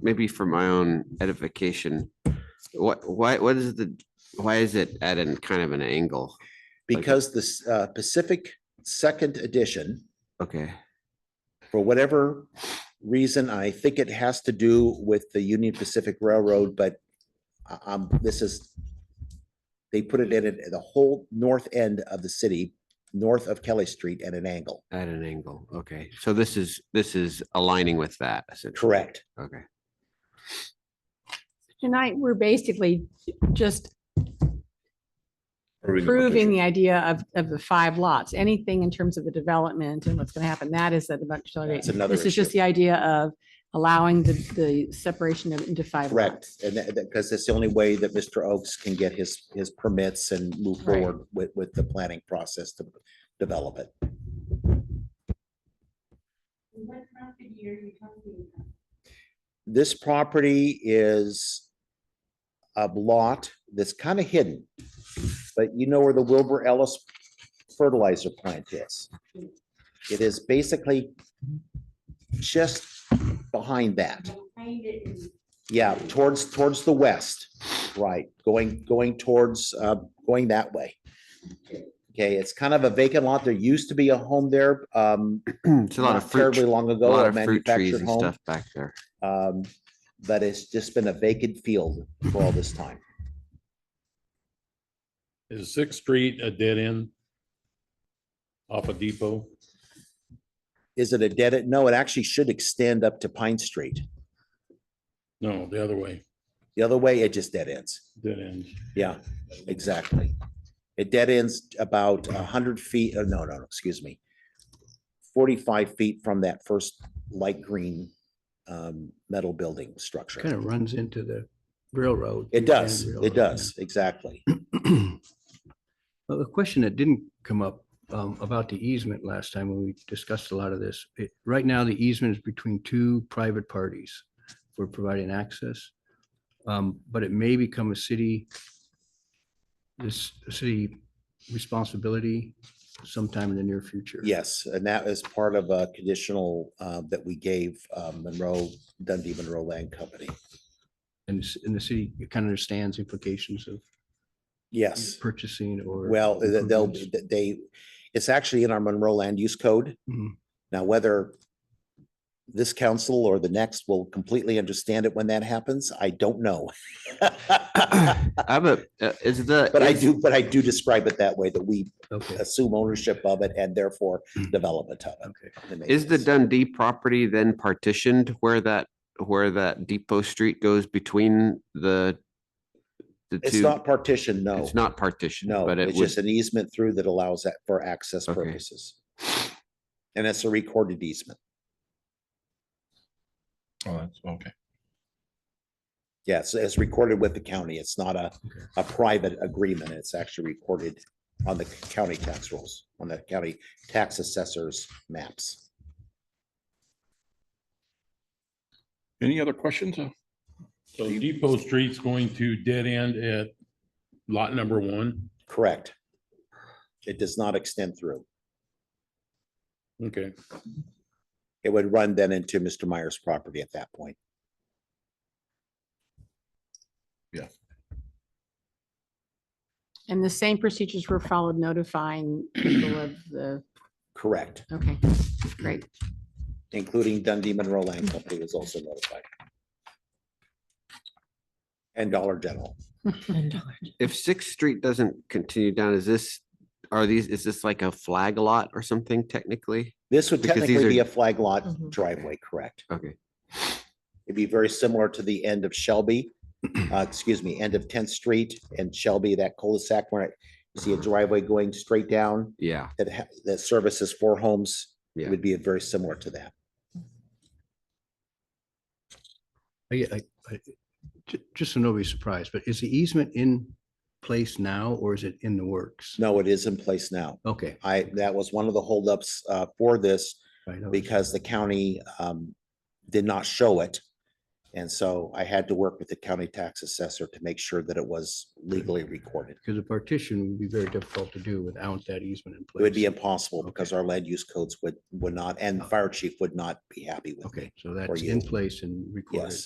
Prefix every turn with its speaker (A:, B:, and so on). A: maybe for my own edification, what, why, what is the, why is it at an kind of an angle? Like-
B: Because this uh, Pacific Second Edition,
A: Okay,
B: for whatever reason, I think it has to do with the Union Pacific Railroad, but I- um, this is, they put it in at the whole north end of the city, north of Kelly Street at an angle.
A: at an angle. Okay, so this is, this is aligning with that. essentially.
B: Correct.
A: Okay,
C: Tonight, we're basically just
D: Approving the
C: proving
D: petition.
C: the idea of, of the five lots. Anything in terms of the development and what's going to happen, that is at the much.
B: That's another
C: This is just
B: issue.
C: the idea of allowing the, the separation of- into five
B: Correct.
C: lots.
B: And that, because that's the only way that Mr. Oaks can get his, his permits and move
C: Right.
B: forward with, with the planning process to develop it. This property is a lot that's kind of hidden. But you know where the Wilbur Ellis fertilizer plant is? It is basically just behind that. Yeah, towards, towards the west, right, going, going towards, uh, going that way. Okay, it's kind of a vacant lot. There used to be a home there, um,
A: it's a lot of
B: not
A: fruit,
B: terribly
A: tr-
B: long
A: a
B: ago,
A: lot
B: a
A: of fruit trees
B: manufactured
A: and
B: home.
A: stuff back there.
B: Um, but it's just been a vacant field for all this time.
D: Is Sixth Street a dead end? Off a depot?
B: Is it a dead, end? no, it actually should extend up to Pine Street.
D: No, the other way,
B: The other way, it just dead ends.
D: dead end.
B: Yeah, exactly. It dead ends about a hundred feet, oh, no, no, no, excuse me. Forty-five feet from that first light green um, metal building
E: Kind
B: structure.
E: of runs into the railroad.
B: It does,
E: Grand
B: it
E: Railroad.
B: does, exactly.
E: Well, the question that didn't come up um, about the easement last time when we discussed a lot of this, it- right now the easement is between two private parties for providing access. Um, But it may become a city, this a city responsibility sometime in the near future.
B: Yes, and that is part of a conditional uh, that we gave um, Monroe, Dundee Monroe Land Company.
E: And s- and the city kind of understands implications of
B: Yes,
E: purchasing or.
B: well, th- they'll,
E: improvements.
B: they, it's actually in our Monroe Land Use Code.
E: Mhm.
B: Now, whether this council or the next will completely understand it when that happens, I don't know. But
A: I have a, uh, is the.
B: I
A: is-
B: do, but I do describe it that way, that we
E: Okay,
B: assume ownership of it and therefore development of
E: okay.
B: it. and
A: Is the
B: maintenance.
A: Dundee property then partitioned where that, where that depot street goes between the? The
B: It's
A: two,
B: not partitioned, no.
A: it's not partitioned,
B: No,
A: but it
B: it's
A: was,
B: just an easement through that allows that for access
A: Okay.
B: purposes. And it's a recorded easement.
D: Oh, that's okay.
B: Yes, it's recorded with the county. It's not a,
E: Okay.
B: a private agreement. It's actually recorded on the county tax rolls, on the county tax assessor's maps.
F: Any other questions? Uh,
D: So Depot Street's going to dead end at lot number one.
B: Correct. It does not extend through.
D: Okay,
B: It would run then into Mr. Meyer's property at that point.
C: And the same procedures were followed notifying people of the,
B: Correct,
C: okay, great.
B: including Dundee Monroe Land
A: Mm-hmm.
B: Company was also notified. And Dollar General.
A: if Sixth Street doesn't continue down, is this, are these, is this like a flag lot or something technically?
B: This would
A: Because these
B: technically be
A: are-
B: a flag lot
C: Mhm.
B: driveway, correct?
A: Okay,
B: It'd be very similar to the end of Shelby, uh, excuse me, end of Tenth Street and Shelby, that cul-de-sac where you see a driveway going straight down
A: yeah,
B: that ha- that services four homes. It
A: Yeah.
B: would be very similar to that.
E: I, I, I, ju- just so nobody's surprised, but is the easement in place now or is it in the works?
B: No, it is in place now.
E: Okay.
B: I, that was one of the holdups uh, for this
E: I know.
B: because the county um, did not show it. And so I had to work with the county tax assessor to make sure that it was legally recorded.
E: Because a partition would be very difficult to do without that easement in place.
B: It would be impossible because our land use codes would, would not, and fire chief would not be happy with me.
E: Oh. Okay, so that's
B: you.
E: in place and recorded.
B: Yes.